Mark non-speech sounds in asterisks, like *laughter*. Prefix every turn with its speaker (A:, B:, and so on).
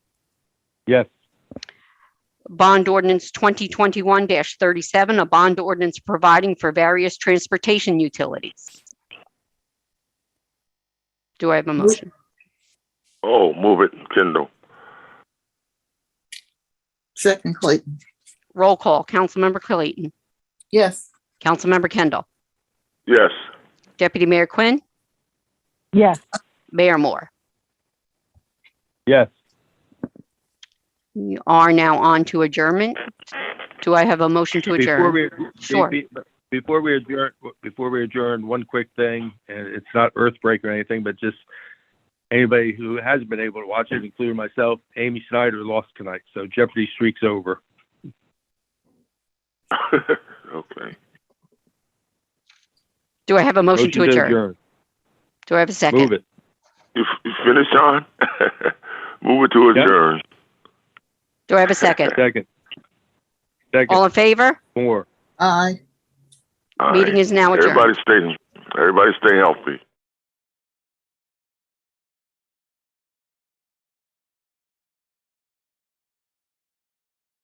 A: Yes.
B: Bond ordinance 2021-37, a bond ordinance providing for various transportation utilities. Do I have a motion?
C: Oh, move it, Kindle.
D: Second Clayton.
B: Roll call. Councilmember Clayton.
D: Yes.
B: Councilmember Kendall.
C: Yes. *laughs*
B: Deputy Mayor Quinn.
E: yes,
B: Mayor Moore.
A: Yes.
B: We are now on to adjournment. Do I have a motion to
A: Before
B: adjourn?
A: we,
B: Sure.
A: be- be- before we adjourn, before we adjourn, one quick thing, and it's not earthbreak or anything, but just anybody who hasn't been able to watch it, including myself, Amy Snyder lost tonight, so Jeopardy streaks over.
C: okay.
B: Do I have a motion to adjourn? Do I have a
A: Move
B: second?
A: it.
C: You, f- you finished, *laughs* John? move it to
A: Yep.
C: adjourn.
B: Do I have a second?
A: Second. Second,
B: All in favor?
A: more.
D: Aye.
C: All
B: Meeting
C: right.
B: is now adjourned.
C: Everybody stay. Everybody stay healthy.